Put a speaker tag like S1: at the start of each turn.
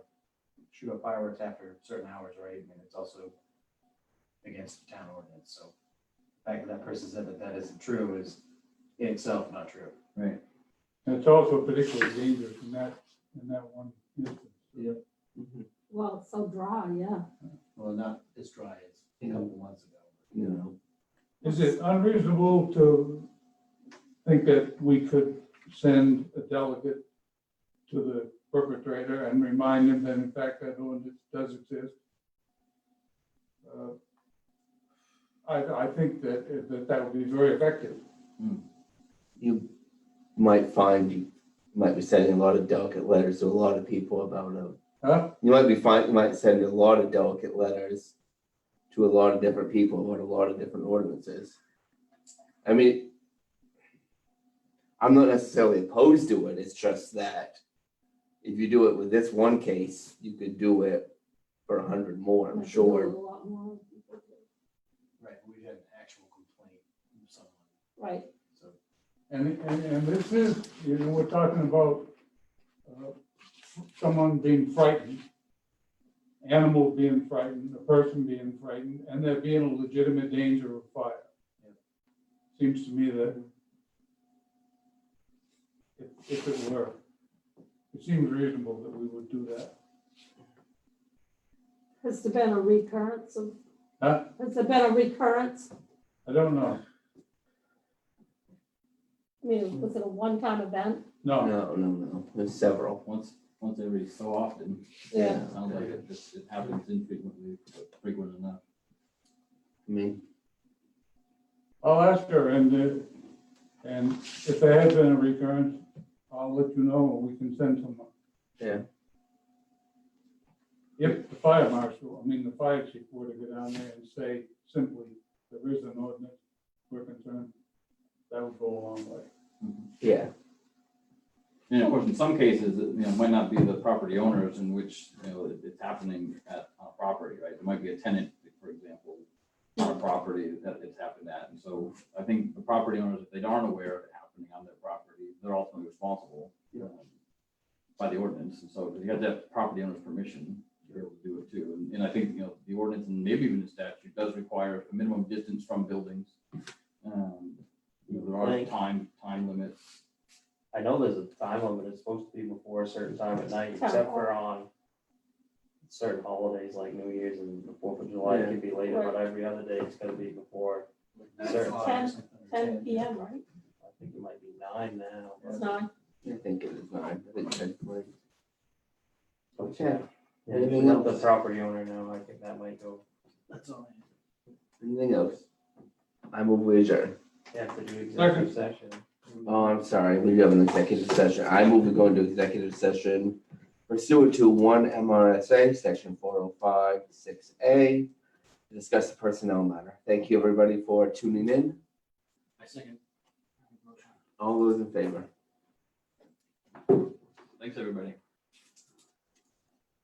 S1: shoot up fireworks after certain hours, right? And it's also against the town ordinance, so the fact that that person said that that isn't true is in itself not true.
S2: And it's also particularly dangerous in that, in that one instance.
S3: Well, it's so dry, yeah.
S1: Well, not as dry as a couple months ago.
S4: you know,
S2: Is it unreasonable to think that we could send a delegate to the perpetrator and remind him that in fact that ordinance does exist? Uh, I, I think that, that that would be very effective.
S4: you might find you might be sending a lot of delicate letters to a lot of people about them.
S2: Huh?
S4: You might be find you might send a lot of delicate letters to a lot of different people about a lot of different ordinances. I mean, I'm not necessarily opposed to it. It's just that if you do it with this one case, you could do it for a hundred more. I'm
S3: Like, a
S4: sure.
S3: lot more.
S1: Right, we had an actual complaint from someone,
S3: Right,
S1: so.
S2: And, and, and this is, you know, we're talking about uh, someone being frightened, animals being frightened, a person being frightened, and there being a legitimate danger of fire. Seems to me that if, if it were, it seems reasonable that we would do that.
S3: has there been a recurrence of,
S2: Huh?
S3: has there been a recurrence?
S2: I don't know,
S3: I mean, was it a one-time event?
S2: no,
S4: No, no, no. There's several.
S5: Once, once every so often,
S4: Yeah.
S5: it sounds like it just, it happens infrequently, but frequent enough.
S4: I mean,
S2: I'll ask her, and, uh, and if there has been a recurrence, I'll let you know, and we can send someone.
S4: yeah.
S2: If the fire marshal, I mean, the fire chief were to go down there and say simply, there is an ordinance, we're concerned, that would go a long way.
S4: Yeah.
S5: And of course, in some cases, it, you know, might not be the property owners in which, you know, it- it's happening at, on a property, right? It might be a tenant, for example, on a property that it's happened at. And so I think the property owners, if they aren't aware of it happening on their property, they're ultimately responsible um, by the ordinance. And so you have to have property owner's permission to be able to do it too. And, and I think, you know, the ordinance and maybe even the statute does require a minimum distance from buildings. Um, You know, there are
S6: Right.
S5: time, time limits.
S6: I know there's a time limit, it's supposed to be before a certain time at night,
S3: Town
S6: except for on certain holidays like New Year's and the Fourth of July, it could be later, but every other day it's gonna be before. Sir.
S3: Ten P M, right?
S6: I think it might be nine now.
S3: It's
S6: but-
S3: nine.
S4: I think it was nine. I think Ted played.
S6: but
S4: Yeah.
S6: Yeah, if
S4: Anything
S6: you let the
S4: else?
S6: property owner know, I think that might go,
S1: That's all I have.
S4: Anything else? I move we adjourn.
S6: you have to do
S2: Second.
S6: executive session.
S4: Oh, I'm sorry. We do have an executive session. I move we go into executive session pursuant to one MRSA, section four oh five six A. to Discuss the personnel matter. Thank you, everybody, for tuning in.
S1: I second.
S4: All those in favor?
S5: Thanks, everybody.